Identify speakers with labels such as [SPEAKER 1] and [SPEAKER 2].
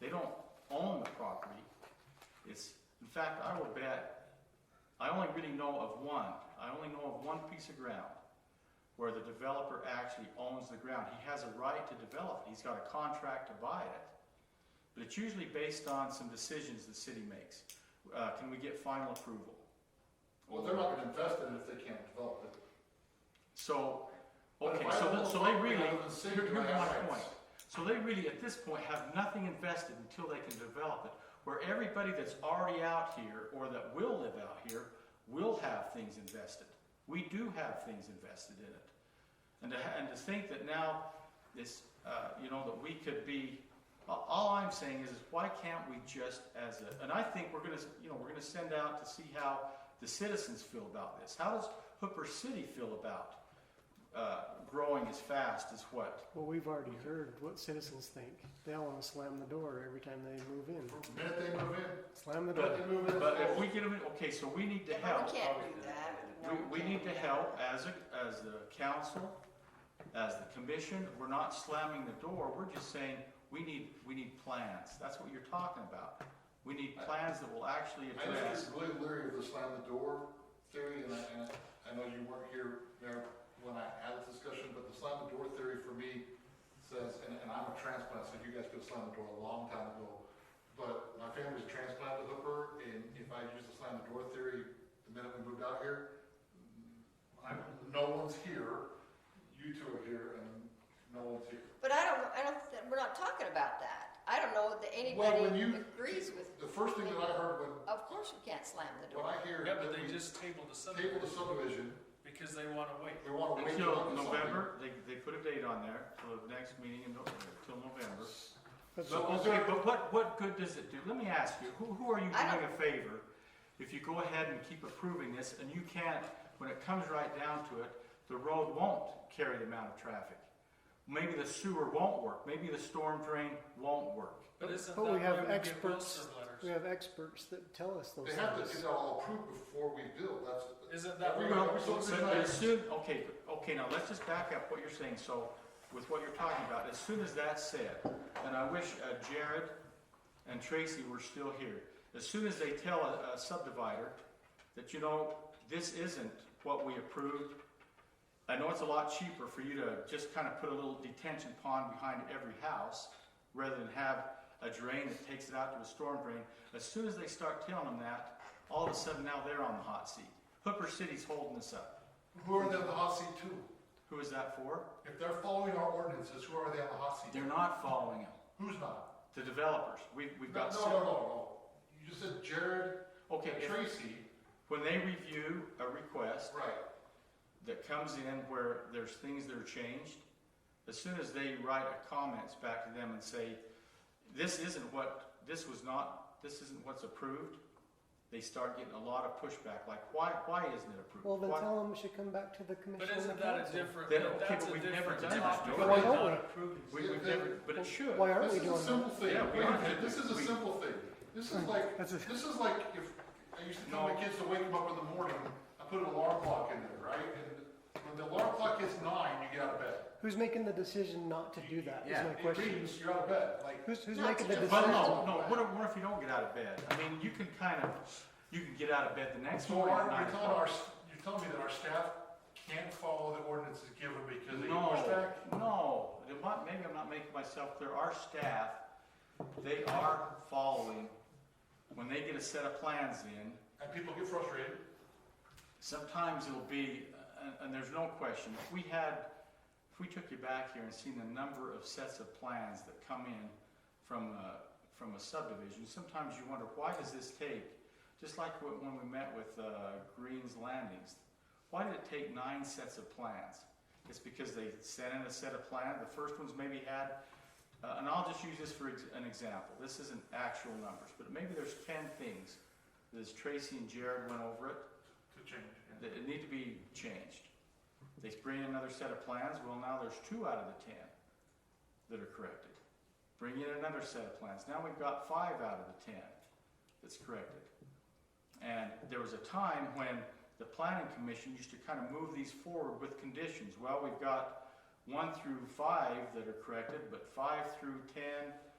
[SPEAKER 1] They don't own the property. It's, in fact, I would bet, I only really know of one, I only know of one piece of ground where the developer actually owns the ground. He has a right to develop it. He's got a contract to buy it. But it's usually based on some decisions the city makes. Uh, can we get final approval?
[SPEAKER 2] Well, they're not gonna invest in it if they can't develop it.
[SPEAKER 1] So,
[SPEAKER 2] But
[SPEAKER 1] okay,
[SPEAKER 2] if I
[SPEAKER 1] so,
[SPEAKER 2] don't
[SPEAKER 1] th- so they
[SPEAKER 2] own
[SPEAKER 1] really,
[SPEAKER 2] it, I'm the city,
[SPEAKER 1] here-
[SPEAKER 2] do
[SPEAKER 1] here's
[SPEAKER 2] I have
[SPEAKER 1] my
[SPEAKER 2] rights?
[SPEAKER 1] point. So they really, at this point, have nothing invested until they can develop it. Where everybody that's already out here, or that will live out here, will have things invested. We do have things invested in it. And to, ha- and to think that now, this, uh, you know, that we could be, a- all I'm saying is, is why can't we just as a, and I think we're gonna, s- you know, we're gonna send out to see how the citizens feel about this. How does Hooper City feel about, uh, growing as fast as what?
[SPEAKER 3] Well, we've already heard what citizens think. They all want to slam the door every time they move in.
[SPEAKER 2] The minute they move in,
[SPEAKER 3] Slam the
[SPEAKER 2] the minute
[SPEAKER 3] door.
[SPEAKER 2] they move in.
[SPEAKER 1] But if we get them, okay, so we need to
[SPEAKER 4] No,
[SPEAKER 1] help.
[SPEAKER 4] We can't do that. No,
[SPEAKER 1] We, we
[SPEAKER 4] can't
[SPEAKER 1] need
[SPEAKER 4] do
[SPEAKER 1] to
[SPEAKER 4] that.
[SPEAKER 1] help as a, as the council, as the commission, we're not slamming the door, we're just saying, we need, we need plans, that's what you're talking about. We need plans that will actually
[SPEAKER 2] I know
[SPEAKER 1] address,
[SPEAKER 2] you're really leery of the slam the door theory, and I, and I know you weren't here, Mayor, when I had this discussion, but the slam the door theory for me says, and, and I'm a transplant, so you guys could have slammed the door a long time ago. But my family's a transplant to Hooper, and if I use the slam the door theory, the minute we moved out here, I'm, no one's here, you two are here, and no one's here.
[SPEAKER 4] But I don't, I don't, th- we're not talking about that. I don't know that
[SPEAKER 2] when
[SPEAKER 4] anybody
[SPEAKER 2] you-
[SPEAKER 4] agrees with,
[SPEAKER 2] The first thing that I heard when,
[SPEAKER 4] of course you can't slam the
[SPEAKER 2] when
[SPEAKER 4] door.
[SPEAKER 2] I hear.
[SPEAKER 5] Yeah,
[SPEAKER 2] that
[SPEAKER 5] but they
[SPEAKER 2] we
[SPEAKER 5] just tabled the
[SPEAKER 2] Table the
[SPEAKER 5] subdivision
[SPEAKER 2] subdivision,
[SPEAKER 5] because they wanna wait.
[SPEAKER 2] we wanna wait till.
[SPEAKER 1] until
[SPEAKER 2] after something.
[SPEAKER 1] November, they, they put a date on there, till the next meeting in, Nov- till November.
[SPEAKER 3] But
[SPEAKER 1] So, okay, but what, what good does it do? Let me ask you, who, who are you
[SPEAKER 4] I
[SPEAKER 1] doing a favor if you go ahead and keep approving this and you can't, when it comes right down to it, the road won't carry the amount of traffic? Maybe the sewer won't work, maybe the storm drain won't work.
[SPEAKER 5] But isn't that
[SPEAKER 3] But
[SPEAKER 5] why
[SPEAKER 3] Oh, we
[SPEAKER 5] we
[SPEAKER 3] have
[SPEAKER 5] get
[SPEAKER 3] experts,
[SPEAKER 5] Wilson
[SPEAKER 3] we
[SPEAKER 5] letters?
[SPEAKER 3] have experts that tell us those
[SPEAKER 2] They have to
[SPEAKER 3] things.
[SPEAKER 2] get that all approved before we build, that's.
[SPEAKER 5] Isn't that
[SPEAKER 2] Every-
[SPEAKER 5] what-
[SPEAKER 2] every
[SPEAKER 1] So,
[SPEAKER 2] subdivision
[SPEAKER 1] but
[SPEAKER 2] I-
[SPEAKER 1] as soon, okay, okay, now let's just back up what you're saying, so, with what you're talking about, as soon as that's said, and I wish uh, Jared and Tracy were still here, as soon as they tell a, a subdivider that, you know, this isn't what we approved, I know it's a lot cheaper for you to just kind of put a little detention pond behind every house, rather than have a drain that takes it out to a storm drain. As soon as they start telling them that, all of a sudden now they're on the hot seat. Hooper City's holding us up.
[SPEAKER 2] Who are they on the hot seat to?
[SPEAKER 1] Who is that for?
[SPEAKER 2] If they're following our ordinances, who are they on the hot seat?
[SPEAKER 1] They're not following them.
[SPEAKER 2] Who's not?
[SPEAKER 1] The developers. We've,
[SPEAKER 2] No,
[SPEAKER 1] we've
[SPEAKER 2] no,
[SPEAKER 1] got.
[SPEAKER 2] no, no, no, you just said Jared
[SPEAKER 1] Okay,
[SPEAKER 2] and
[SPEAKER 1] if-
[SPEAKER 2] Tracy,
[SPEAKER 1] when they review a request
[SPEAKER 2] right,
[SPEAKER 1] that comes in where there's things that are changed, as soon as they write a comments back to them and say, this isn't what, this was not, this isn't what's approved, they start getting a lot of pushback, like, why, why isn't it approved?
[SPEAKER 3] Well, then
[SPEAKER 1] Why-
[SPEAKER 3] tell them it should come back to the commission
[SPEAKER 5] But
[SPEAKER 3] and the
[SPEAKER 5] isn't that a
[SPEAKER 3] council.
[SPEAKER 5] different,
[SPEAKER 1] Then, okay,
[SPEAKER 5] that's
[SPEAKER 1] but
[SPEAKER 5] a
[SPEAKER 1] we've never
[SPEAKER 5] different
[SPEAKER 1] done that,
[SPEAKER 5] topic.
[SPEAKER 1] do
[SPEAKER 5] We're
[SPEAKER 1] we?
[SPEAKER 3] Why don't
[SPEAKER 5] not
[SPEAKER 3] we?
[SPEAKER 5] approving.
[SPEAKER 1] We, we've never, but it should.
[SPEAKER 3] Why aren't
[SPEAKER 2] this is
[SPEAKER 3] we
[SPEAKER 2] a
[SPEAKER 3] doing that?
[SPEAKER 2] simple thing,
[SPEAKER 1] Yeah, we
[SPEAKER 2] Wait a
[SPEAKER 1] aren't-
[SPEAKER 2] minute, this is a
[SPEAKER 1] we-
[SPEAKER 2] simple thing, this is like,
[SPEAKER 3] That's a-
[SPEAKER 2] this is like if, I used to tell
[SPEAKER 1] No.
[SPEAKER 2] my kids to wake them up in the morning, I put an alarm clock in there, right? And when the alarm clock hits nine, you get out of bed.
[SPEAKER 3] Who's making the decision not to do that? Is my
[SPEAKER 2] It
[SPEAKER 3] question.
[SPEAKER 2] means you're out of bed, like.
[SPEAKER 3] Who's, who's
[SPEAKER 4] Not
[SPEAKER 3] making
[SPEAKER 4] to
[SPEAKER 3] the
[SPEAKER 4] do-
[SPEAKER 1] But
[SPEAKER 3] decision?
[SPEAKER 1] no, no, what if, what if you don't get out of bed? I mean, you can kind of, you can get out of bed the next
[SPEAKER 2] So
[SPEAKER 1] morning
[SPEAKER 2] are,
[SPEAKER 1] at nine
[SPEAKER 2] you're telling our,
[SPEAKER 1] o'clock.
[SPEAKER 2] s- you're telling me that our staff can't follow the ordinances given because they get
[SPEAKER 1] No,
[SPEAKER 2] pushback?
[SPEAKER 1] no, Then what- maybe I'm not making myself clear, our staff, they are following, when they get a set of plans in,
[SPEAKER 2] And people get frustrated?
[SPEAKER 1] sometimes it'll be, and, and there's no question, if we had, if we took you back here and seen the number of sets of plans that come in from a, from a subdivision, sometimes you wonder, why does this take, just like wh- when we met with, uh, Green's Landings, why did it take nine sets of plans? It's because they sent in a set of plans, the first ones maybe had, uh, and I'll just use this for ex- an example, this isn't actual numbers, but maybe there's ten things, as Tracy and Jared went over it,
[SPEAKER 2] To change, yeah.
[SPEAKER 1] that it need to be changed. They bring in another set of plans, well, now there's two out of the ten that are corrected. Bring in another set of plans, now we've got five out of the ten that's corrected. And there was a time when the planning commission used to kind of move these forward with conditions. Well, we've got one through five that are corrected, but five through ten